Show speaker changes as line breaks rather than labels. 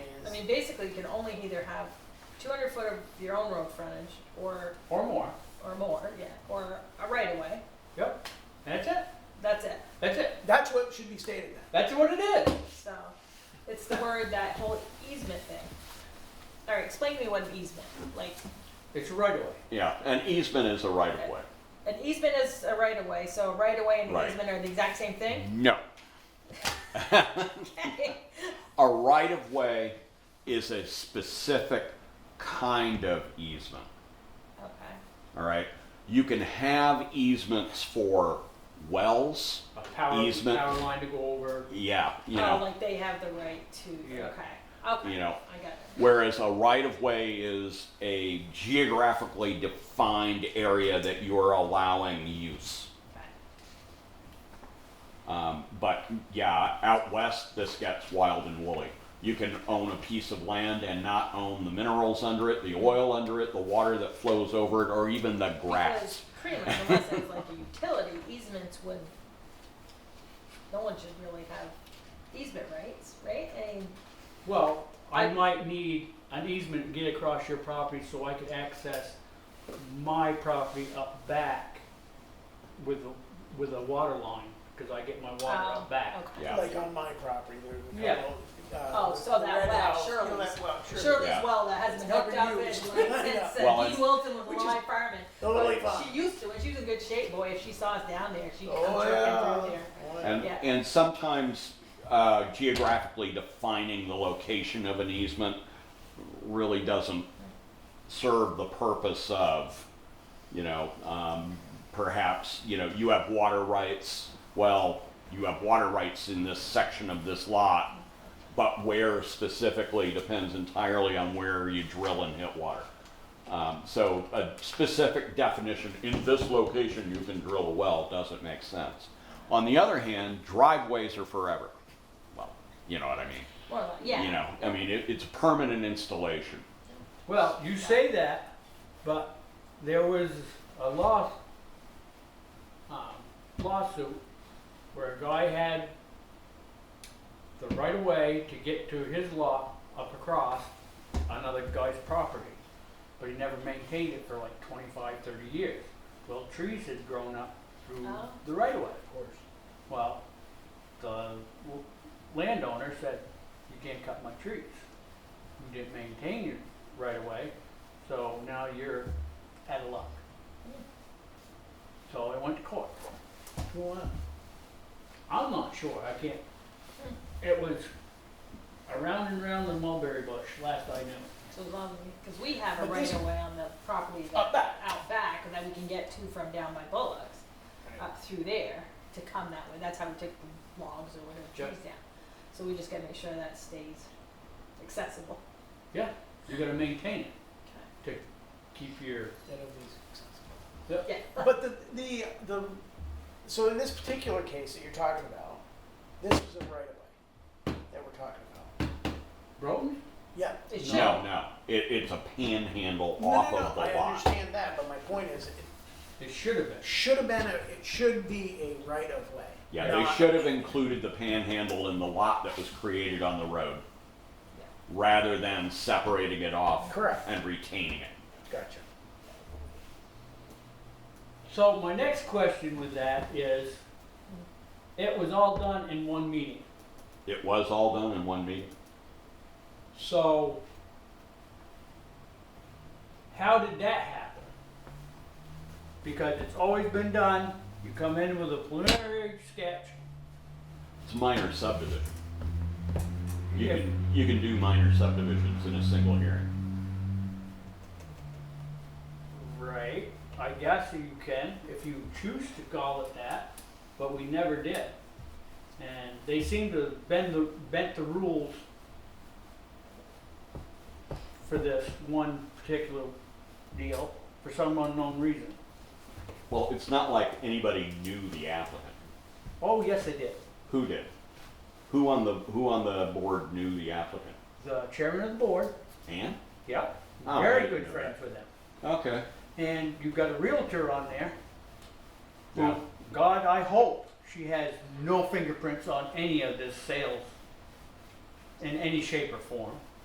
you basically can only either have two hundred foot of your own road frontage or,
or more.
or more, yeah, or a right of way,
Yep. That's it.
that's it.
That's it.
That's what should be stated then.
That's what it is.
So, it's the word, that whole easement thing. Alright, explain to me what an easement, like,
It's a right of way.
Yeah, an easement is a right of way.
an easement is a right of way, so a right of way and an
Right.
easement are the exact same thing?
No. Mm-hmm.
Okay.
A right of way is a specific kind of easement.
Okay,
All right. You can have easements for wells.
A power,
Easement.
power line to go over.
Yeah. You
oh,
know,
like they have the right to,
Yeah.
okay, okay,
you
I
know,
got it.
whereas a right of way is a geographically defined area that you're allowing use.
Okay.
Um, but yeah, out west, this gets wild and woolly. You can own a piece of land and not own the minerals under it, the oil under it, the water that flows over it, or even the
Because
grass.
pretty much unless it's like a utility, easements would, no one should really have easement rights, right? I mean,
Well, I
I-
might need an easement to get across your property so I could access my property up back with, a- with a water line, because I get my water
Oh,
up back.
okay.
Yeah.
Like on my property, there's a
Yeah.
couple,
Oh,
uh,
so that
red
well,
house, you know
Shirley's.
that well, Shirley's.
Shirley's
Yeah.
well that hasn't been hooked
Never
up in like
used.
since
Well,
uh,
it's-
Dean Wilson was
which
alive farming.
the lily
But
pond.
She used to, when she was in good shape, boy, if she saw us down there, she'd come
Oh,
jerking
yeah.
through there.
Oh, yeah.
And,
Yeah.
and sometimes uh, geographically defining the location of an easement really doesn't serve the purpose of, you know, um, perhaps, you know, you have water rights. Well, you have water rights in this section of this lot, but where specifically depends entirely on where you drill and hit water. Um, so a specific definition, in this location you can drill a well, doesn't make sense. On the other hand, driveways are forever. Well, you know what I mean?
More like, yeah.
You know, I mean, it, it's permanent installation.
Well, you say that, but there was a law, um, lawsuit where a guy had the right of way to get to his lot up across another guy's property, but he never maintained it for like 25, 30 years. Well, trees had grown up through
Oh.
the right of way, of course. Well, the l- landowner said, "You can't cut my trees. You didn't maintain your right of way, so now you're out of luck." So I went to court. I'm not sure. I can't. It was around and around the mulberry bush. Last I knew.
So as long because we have a
But
right
this-
of way on the property that,
Up back.
out back, and then we can get to from down by Bullocks up through there to come that way. That's how we took the logs or whatever
Sure.
trees down. So we just gotta make sure that stays accessible.
Yeah, you got to maintain it to keep your.
Yeah.
But the, the, the, so in this particular case that you're talking about, this is a right of way that we're talking about.
Road?
Yeah.
It should.
No, no, it, it's a panhandle
No,
off
no,
of
no,
the
I
lot.
understand that, but my point is, it
It should have been.
should have been, a it should be a right of way.
Yeah, they
not-
should have included the panhandle in the lot that was created on the road,
Yeah.
rather than separating it off.
Correct.
And retaining it.
Gotcha.
So my next question with that is, it was all done in one meeting.
It was all done in one meeting.
So how did that happen? Because it's always been done. You come in with a preliminary sketch.
It's minor subdivision. You
Yeah.
can, you can do minor subdivisions in a single hearing.
Right. I guess you can if you choose to call it that, but we never did. And they seem to bend the bent the rules for this one particular deal for some unknown reason.
Well, it's not like anybody knew the applicant.
Oh yes, they did.
Who did? Who on the, who on the board knew the applicant?
The chairman of the board.
Ann?
Yep.
Oh, I
Very
didn't
good
know
friends with them.
Okay.
And you've got a realtor on there. who,
Yeah.
God, I hope she has no fingerprints on any of this sales in any shape or form.